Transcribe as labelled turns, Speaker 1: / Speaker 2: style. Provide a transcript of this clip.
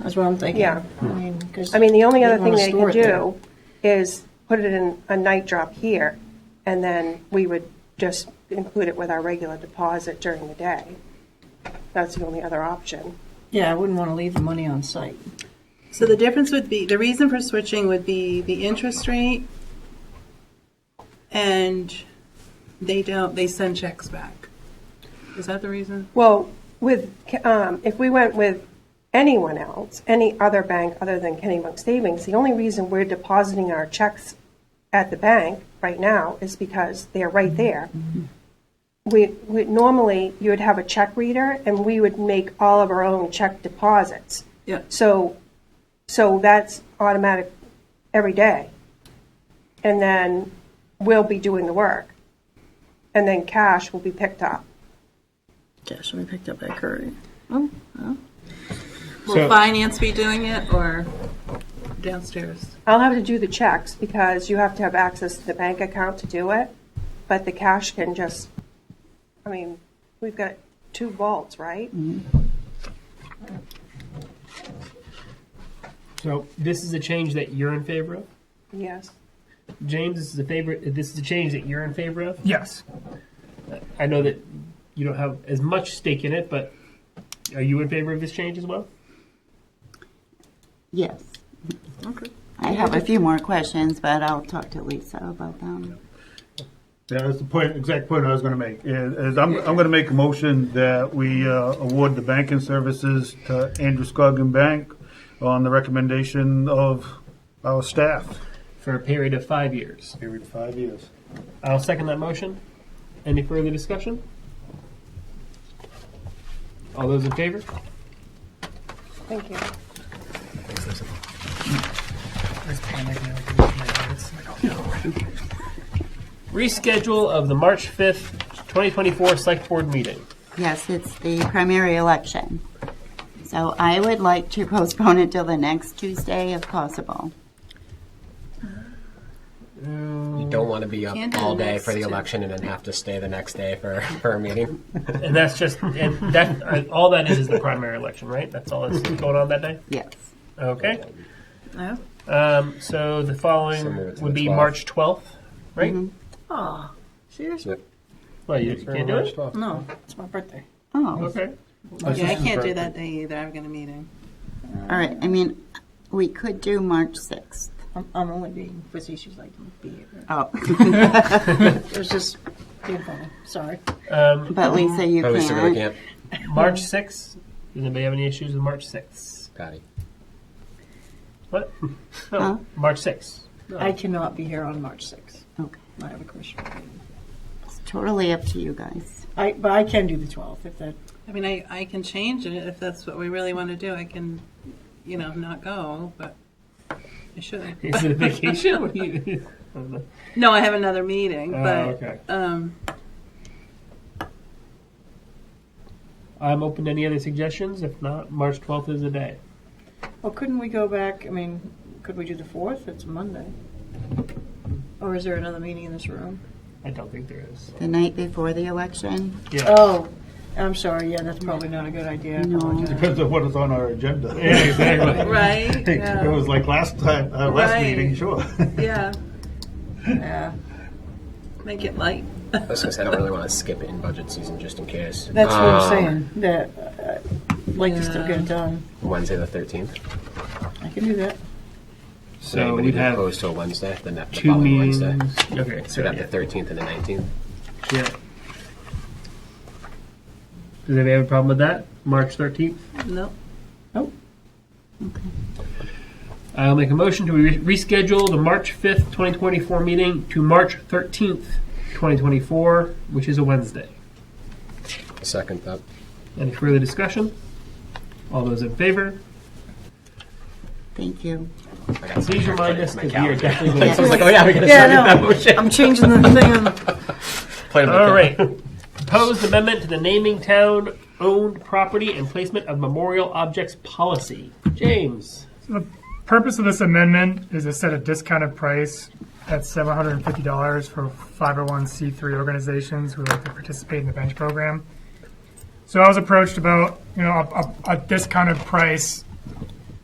Speaker 1: That's what I'm thinking.
Speaker 2: Yeah.
Speaker 1: I mean, 'cause
Speaker 2: I mean, the only
Speaker 1: you'd
Speaker 2: other
Speaker 1: wanna
Speaker 2: thing they
Speaker 1: store
Speaker 2: could
Speaker 1: it there.
Speaker 2: do is put it in a night drop here, and then we would just include it with our regular deposit during the day. That's the only other option.
Speaker 1: Yeah, I wouldn't want to leave the money on site.
Speaker 3: So the difference would be, the reason for switching would be the interest rate, and they don't, they send checks back. Is that the reason?
Speaker 2: Well, with, um, if we went with anyone else, any other bank other than Kennybunk Savings, the only reason we're depositing our checks at the bank right now is because they're right there. We, we, normally, you would have a check reader, and we would make all of our own check deposits.
Speaker 3: Yeah.
Speaker 2: So, so that's automatic every day. And then we'll be doing the work. And then cash will be picked up.
Speaker 4: Cash will be picked up by Curry.
Speaker 3: Will
Speaker 5: So-
Speaker 3: finance be doing it, or downstairs?
Speaker 2: I'll have to do the checks because you have to have access to the bank account to do it, but the cash can just, I mean, we've got two vaults, right?
Speaker 5: So this is a change that you're in favor of,
Speaker 2: Yes.
Speaker 5: James. This is a favorite. This is a change that you're in favor of.
Speaker 6: Yes.
Speaker 5: I know that you don't have as much stake in it, but are you in favor of this change as well?
Speaker 7: Yes. I have a few more questions, but I'll talk to Lisa about them.
Speaker 6: Yeah, that's the point, exact point I was gonna make, is, is I'm, I'm gonna make a motion that we, uh, award the banking services to Andrew Scoggin Bank on the recommendation of our staff.
Speaker 5: For a period of five years.
Speaker 6: Period five years.
Speaker 5: I'll second that motion. Any further discussion? All those in favor?
Speaker 2: Thank you.
Speaker 5: Reschedule of the March 5th, 2024 Select Board meeting.
Speaker 7: Yes, it's the primary election. So I would like to postpone it till the next Tuesday if possible.
Speaker 8: You don't want to be up
Speaker 3: Can't do
Speaker 8: all
Speaker 3: the
Speaker 8: day
Speaker 3: next
Speaker 8: for the
Speaker 3: two.
Speaker 8: election and then have to stay the next day for, for a meeting.
Speaker 5: And that's just, and that, uh, all that is is the primary election, right? That's all that's going on that day?
Speaker 7: Yes.
Speaker 5: Okay.
Speaker 3: Yeah.
Speaker 5: Um, so the
Speaker 8: So
Speaker 5: following
Speaker 8: move it to
Speaker 5: would
Speaker 8: the
Speaker 5: be
Speaker 8: 12th.
Speaker 5: March 12th, right?
Speaker 3: Oh, seriously?
Speaker 5: Well, you can't do it?
Speaker 3: No.
Speaker 1: It's my birthday.
Speaker 7: Oh,
Speaker 5: Okay.
Speaker 3: Yeah, I can't do that day either, I've got a meeting.
Speaker 7: all right. I mean, we could do March 6th.
Speaker 1: I'm, I'm only being facetious. I can't be here.
Speaker 7: Oh,
Speaker 1: It was just being funny. Sorry.
Speaker 5: Um,
Speaker 7: but Lisa, you
Speaker 8: At least really
Speaker 7: can't.
Speaker 8: can't.
Speaker 5: March 6th. Does anybody have any issues with March 6th?
Speaker 8: Patty.
Speaker 5: What? No.
Speaker 7: Huh?
Speaker 5: Oh, March 6th.
Speaker 2: Oh.
Speaker 1: I cannot be here on March 6th.
Speaker 7: Okay.
Speaker 1: I have a commissioner meeting.
Speaker 7: It's totally up to you guys.
Speaker 1: I, but I can do the 12th if that.
Speaker 3: I mean, I, I can change it if that's what we really want to do, I can, you know, not go, but I should.
Speaker 5: Is it a vacation? What do you- I don't know.
Speaker 3: No, I have another meeting,
Speaker 5: Oh,
Speaker 3: but,
Speaker 5: okay.
Speaker 3: um,
Speaker 5: I'm open to any other suggestions. If not, March 12th is the day.
Speaker 1: Well, couldn't we go back? I mean, could we do the 4th? It's Monday. Or is there another meeting in this room?
Speaker 5: I don't think there is.
Speaker 7: The night before the election?
Speaker 5: Yeah.
Speaker 1: Oh, I'm sorry. Yeah, that's probably not a good idea. I
Speaker 7: No.
Speaker 1: apologize.
Speaker 6: Depends on what is on our agenda.
Speaker 5: Yeah, exactly.
Speaker 3: right?
Speaker 6: It
Speaker 3: Yeah.
Speaker 6: was like last time, uh, last
Speaker 3: Right.
Speaker 6: meeting, sure.
Speaker 3: Yeah,
Speaker 1: Yeah.
Speaker 3: make it light.
Speaker 8: I was going to say, I don't really want to skip it in budget season just in case.
Speaker 1: That's what
Speaker 8: Um,
Speaker 1: I'm saying. That uh, I'd like to still get it done.
Speaker 8: Wednesday the 13th.
Speaker 1: I can do that.
Speaker 8: So
Speaker 5: So
Speaker 8: anybody
Speaker 5: we'd
Speaker 8: be
Speaker 5: have
Speaker 8: opposed to a Wednesday, the, ne- the
Speaker 5: two
Speaker 8: following
Speaker 5: meetings.
Speaker 8: Wednesday.
Speaker 5: Okay,
Speaker 8: So
Speaker 5: so
Speaker 8: we'd
Speaker 5: yeah.
Speaker 8: have the 13th and the 19th.
Speaker 5: yeah. Does anybody have a problem with that? March 13th?
Speaker 3: Nope.
Speaker 5: I'll make a motion to re- reschedule the March 5th, 2024 meeting to March 13th, 2024, which is a Wednesday.
Speaker 8: Second up.
Speaker 5: Any further discussion? All those in favor?
Speaker 7: Thank you.
Speaker 8: I got some
Speaker 5: Please remind
Speaker 8: chocolate
Speaker 5: us
Speaker 8: in my
Speaker 5: because we are
Speaker 8: calendar.
Speaker 5: definitely going
Speaker 8: I was like, oh yeah, we got to
Speaker 1: Yeah,
Speaker 8: sign
Speaker 1: no.
Speaker 8: that motion.
Speaker 1: I'm changing the thing.
Speaker 8: Play with
Speaker 5: All
Speaker 8: it.
Speaker 5: right. Proposed amendment to the naming town owned property and placement of memorial objects policy. James.
Speaker 9: purpose of this amendment is to set a discounted price at $750 for 501c3 organizations who like to participate in the bench program. So I was approached about, you know, a, a, a discounted price